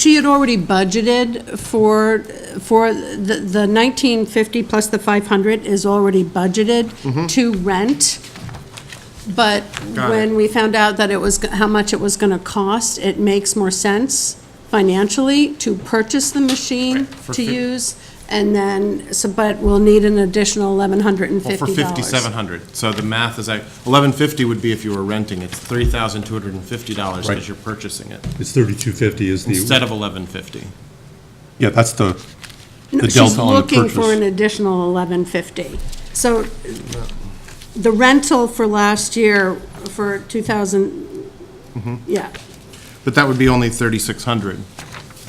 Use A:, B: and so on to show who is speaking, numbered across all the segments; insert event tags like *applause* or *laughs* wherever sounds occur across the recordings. A: She had already budgeted for, for the the 1950 plus the 500 is already budgeted to rent, but
B: Mm-hmm. Got
A: when
B: it.
A: we found out that it was, g- how much it was going to cost, it makes more sense financially to purchase the machine
B: Right, for
A: to
B: fif-
A: use, and then, so, but we'll need an additional $1,150.
B: Well, for fifty-seven hundred, so the math is like, eleven fifty would be if you were renting, it's three thousand two hundred and fifty dollars
C: Right.
B: because you're purchasing it,
C: It's 3250 is
B: instead
C: the,
B: of eleven fifty.
C: yeah, that's the,
A: No,
C: the
A: She's
C: delta on the
A: looking for
C: purchase.
A: an additional eleven fifty. So the rental for last year, for two thousand,
B: Mm-hmm.
A: yeah,
B: But that would be only thirty-six hundred.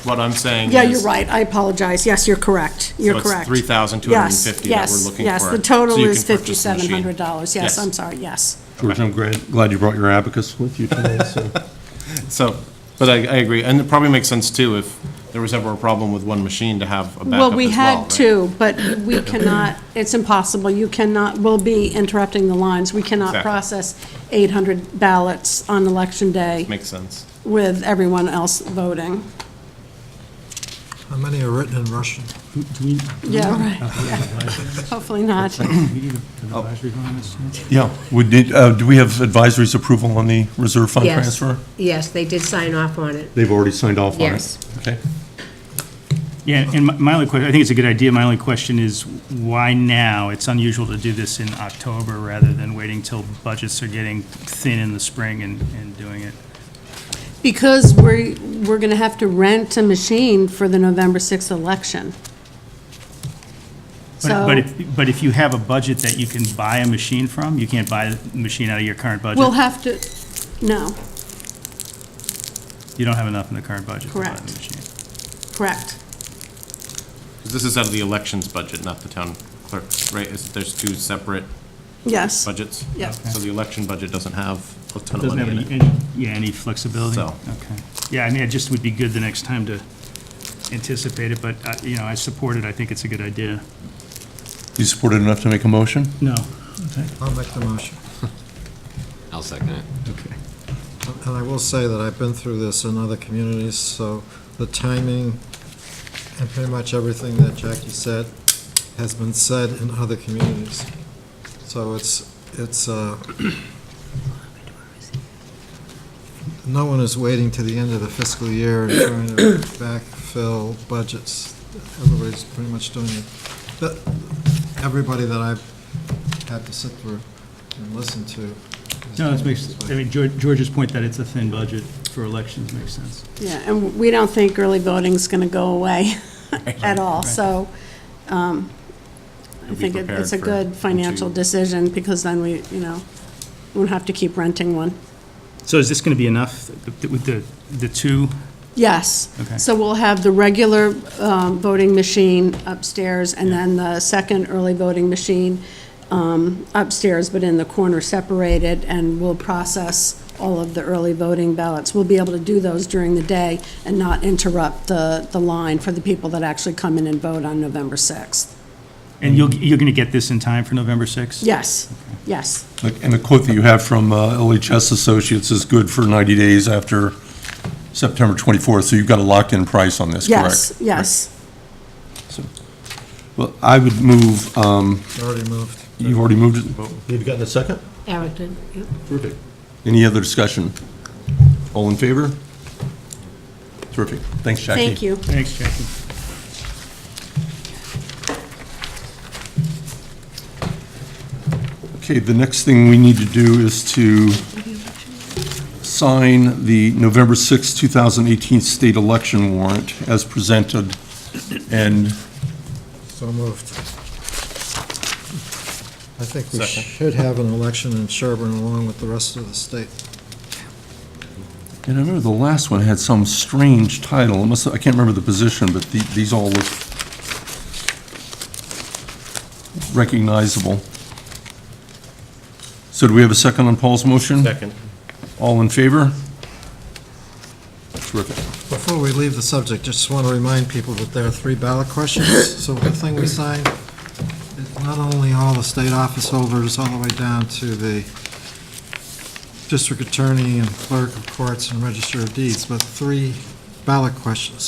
B: What I'm saying is.
A: yeah, you're right, I apologize, yes, you're correct, you're
B: it's
A: correct.
B: $3,250
A: Yes,
B: that
A: yes,
B: we're looking
A: Yes,
B: for.
A: the total
B: So you
A: is
B: can purchase the
A: fifty-seven
B: machine.
A: hundred dollars, yes,
B: Yes.
A: I'm sorry, yes.
C: George, I'm glad, glad you brought your abacus with you today,
A: *laughs*
C: so.
B: So, but I, I agree, and it probably makes sense too, if there was ever a problem with one machine, to have a backup as well.
A: Well, we had
B: right?
A: two, but
B: *coughs*
A: we cannot, it's impossible, you cannot, we'll be interrupting the lines, we cannot
B: Exactly.
A: process eight hundred ballots on election day.
B: Makes sense.
A: with everyone else voting.
D: How many are written in Russian?
A: Yeah, right. *laughs* Hopefully not. *coughs*
E: We need an advisory on this.
C: Yeah, we did, uh, do we have advisory's approval on the reserve fund
F: Yes.
C: transfer?
F: Yes, they did sign off on it.
C: They've already signed off on it?
F: Yes.
C: Okay.
E: Yeah, and my- my only question, I think it's a good idea, my only question is why now? It's unusual to do this in October rather than waiting till budgets are getting thin in the spring and, and doing it.
A: Because we're, we're going to have to rent a machine for the November 6th election.
E: But- But
A: So-
E: if, but if you have a budget that you can buy a machine from, you can't buy the machine out of your current budget.
A: We'll have to, no,
E: You don't have enough in the current budget to buy the
A: Correct.
E: machine.
A: correct.
B: 'Cause This is out of the elections budget, not the town clerk's, right? Is- There's two separate
A: Yes.
B: budgets?
A: Yeah.
B: So the election budget doesn't have a ton of
E: Doesn't
B: money
E: have
B: in
E: any,
B: it.
E: any- yeah, any flexibility?
B: So.
E: Okay. Yeah, I mean, it just would be good the next time to anticipate it, but, uh, you know, I support it, I think it's a good idea.
C: You supported enough to make a motion?
E: No.
D: I'll make the motion.
G: I'll second it.
E: Okay.
D: And I will say that I've been through this in other communities, so the timing and pretty much everything that Jackie said has been said in other communities. So it's, it's, uh, no one is waiting to the end of the fiscal year and trying to backfill budgets. Everybody's pretty much doing it. But Everybody that I've had to sit through and listen to. is
E: No, that
D: doing it
E: makes,
D: this way.
E: I mean, Geor- George's point that it's a thin budget for elections makes sense.
A: Yeah, and we don't think early voting's going to go away at all, so um, I
B: We'll be
A: think it- it's a
B: prepared for
A: good financial
B: two.
A: decision, because then we, you know, won't have to keep renting one.
E: So is this going to be enough th- with the, the two?
A: Yes.
E: Okay.
A: So we'll have the regular um, voting machine upstairs, and then the second early voting machine um, upstairs, but in the corner separated, and we'll process all of the early voting ballots. We'll be able to do those during the day and not interrupt the, the line for the people that actually come in and vote on November 6th.
E: And you'll, you're going to get this in time for November 6th?
A: Yes, yes,
C: Like, And the quote that you have from uh, LHS Associates is good for 90 days after September 24th, so you've got a locked-in price on this, correct?
A: yes, yes.
C: Well, I would move, um,
D: Already moved.
C: you've already moved it? You've gotten a second?
F: Eric did, yep.
C: Terrific. Any other discussion? All in favor? Terrific. Thanks, Jackie.
A: Thank you.
E: Thanks, Jackie.
C: Okay, the next thing we need to do is to sign the November sixth, two 2018 state election warrant as presented. And
D: So moved. I think we should have an election in Sherburne along with the rest of the state.
C: And I remember the last one had some strange title, it must, I can't remember the position, but the- these all look recognizable. So do we have a second on Paul's motion?
B: Second.
C: All in favor? Terrific.
D: Before we leave the subject, just want to remind people that there are three ballot questions. So the thing we signed, it's not only all the state office holders, all the way down to the district attorney and clerk of courts and register of deeds, but three ballot questions.